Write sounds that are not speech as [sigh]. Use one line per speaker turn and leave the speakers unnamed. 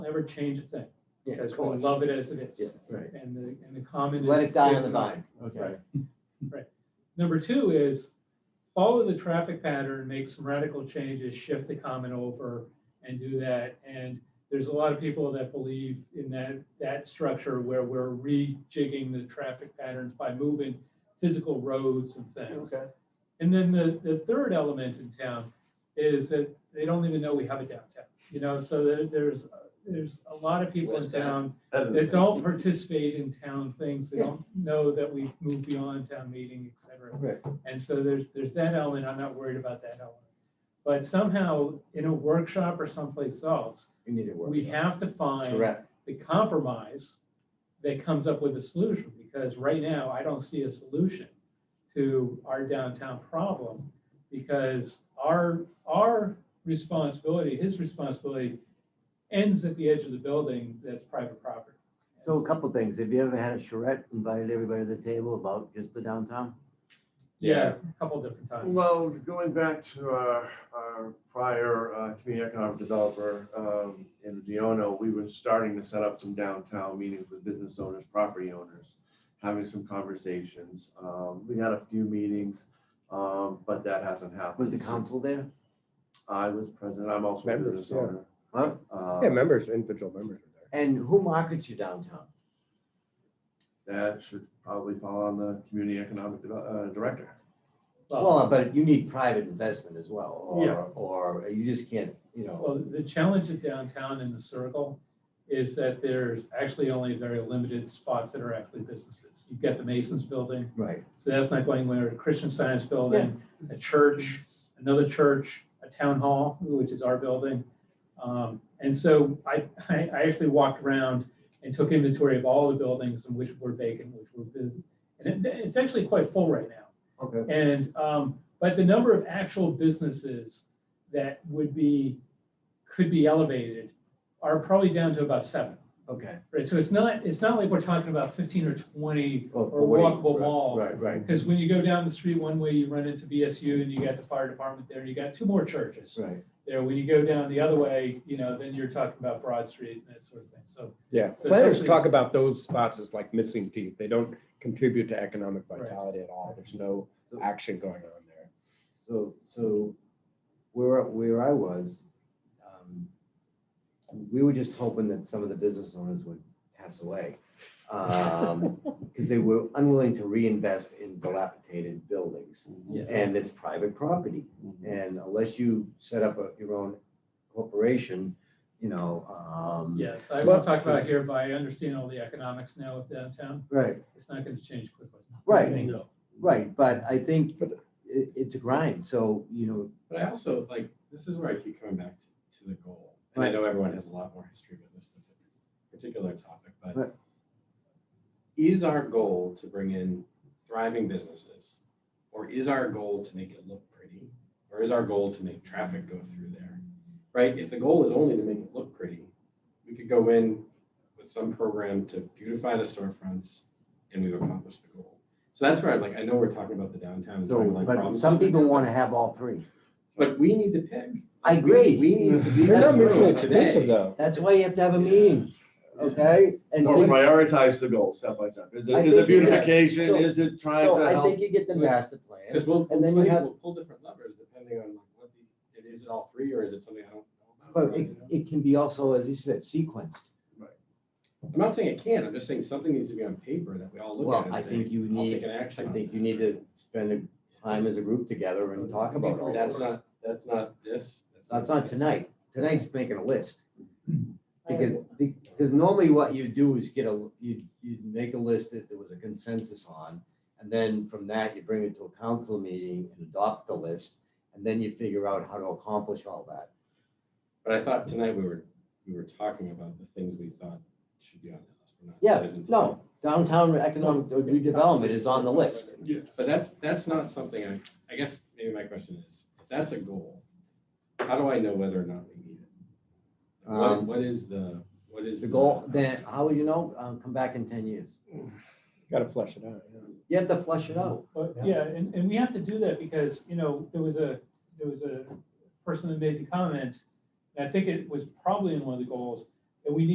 never change a thing,
Yeah,
because
of
we
course.
love it as it
Yeah,
is.
right.
And the, and the comment is.
Let it die
is
on the
not.
vine.
Okay.
Number two is follow the traffic pattern, make some radical changes, shift the comment over and do that. And there's a lot of people that believe in that, that structure where we're rejigging the traffic patterns by moving physical roads and things.
Okay.
And then the, the third element in town is that they don't even know we have a downtown, you know, so there- there's, there's a lot of people in
Where's that?
town
Evans.
that don't participate in town things, they don't know that we've moved beyond town meeting, et cetera.
Right.
And so there's, there's that element, I'm not worried about that element. But somehow, in a workshop or someplace else,
You need to work.
we have to find
Correct.
the compromise that comes up with a solution, because right now, I don't see a solution to our downtown problem, because our, our responsibility, his responsibility ends at the edge of the building that's private property.
So a couple things. Have you ever had a charrette invited everybody to the table about just the downtown?
Yeah, a couple different times.
Well, going back to our, our prior uh, community economic developer um, in Deono, we were starting to set up some downtown meetings with business owners, property owners, having some conversations. Um, We had a few meetings, um, but that hasn't happened.
Was the council there?
I was president. I'm also a
Members,
business
yeah.
owner.
Huh?
Uh,
Yeah, members, individual members are
And who markets you downtown?
That should probably fall on the community economic Deve- uh, director.
Uh,
Well, but you need private investment as well,
Yeah.
or, or you just can't, you know,
Well, the challenge of downtown in the circle is that there's actually only very limited spots that are actually businesses. You've got the Masons Building,
right.
so that's not going anywhere, Christian Science Building, a church, another church, a town hall, which is our building. Um, And so I, I I actually walked around and took inventory of all the buildings and which were vacant, which were busy. And it- it's actually quite full right now.
Okay.
And, um, but the number of actual businesses that would be, could be elevated are probably down to about seven.
Okay.
Right, so it's not, it's not like we're talking about fifteen or twenty
Or
or walkable mall.
Right, right,
Because when you go down the street one way, you run into BSU and you got the fire department there, you got two more churches
right.
there. When you go down the other way, you know, then you're talking about Broad Street and that sort of thing, so.
Yeah,
So
planners
essentially-
talk about those spots as like missing teeth. They don't contribute to economic
Right.
vitality at all. There's no
So-
action going on there.
So, so where, where I was, um, we were just hoping that some of the business owners would pass away. Because they were unwilling to reinvest in dilapidated buildings. And it's private property.
Mm-hmm.
And unless you set up a- your own corporation, you know, um.
Yes, I will talk about here, but I understand all the economics now of downtown.
Right,
It's not gonna change quickly.
Right. right, but I think it, it's a grind, so, you know,
But I also like, this is where I keep coming back to, to the goal. And I
Right.
know everyone has a lot more history with this particular topic,
Right.
but is our goal to bring in thriving businesses? Or is our goal to make it look pretty? Or is our goal to make traffic go through there? Right? If the goal is only to make it look pretty, we could go in with some program to beautify the storefronts and we've accomplished the goal. So that's where I'm like, I know we're talking about the downtown. and
so,
trying to, like, problem
but some
solve it,
people
but-
want to have all three.
but we need to pick.
I agree.
We need to be
They're
that
not mutually
road
exclusive
today.
though.
That's why you have to have a meeting, okay? And
Or
think-
prioritize the goal step by step. Is it,
I
is it
think, yeah.
beautification?
So-
Is it trying
so
to
I
help?
think you get the master plan,
Because we'll,
And then
we'll
you
pull-
have-
we'll pull different levers depending on like what the, it is it all three or is it something I don't know
but
about?
it,
you know?
it can be also, as you said, sequenced.
I'm not saying it can't, I'm just saying something needs to be on paper that we all look
Well,
at and
I
say,
think you
I'll take
need,
an action
I
on
think
that.
you need to spend time as a group together and talk about all
That's
this.
not, that's not this.
That's not tonight, tonight's making a list.
[clears throat]
I
Because, because normally what you do is get a, you, you make a list that there was a consensus on, and then from that, you bring it to a council meeting and adopt the list, and then you figure out how to accomplish all that.
But I thought tonight we were, we were talking about the things we thought should be on the list. We're not-
Yeah,
that isn't tonight.
No, downtown economic redevelopment is on the list.
But that's, that's not something I, I guess maybe my question is, if that's a goal, how do I know whether or not we need it? What,
Um,
what is the, what is?
The goal, then, how would you know, um, come back in ten years?
Got to flesh it out. yeah.
You have to flush it out.
But,
Yeah.
yeah, and, and we have to do that because, you know, there was a, there was a person that made the comment, and I think it was probably in one of the goals, And we need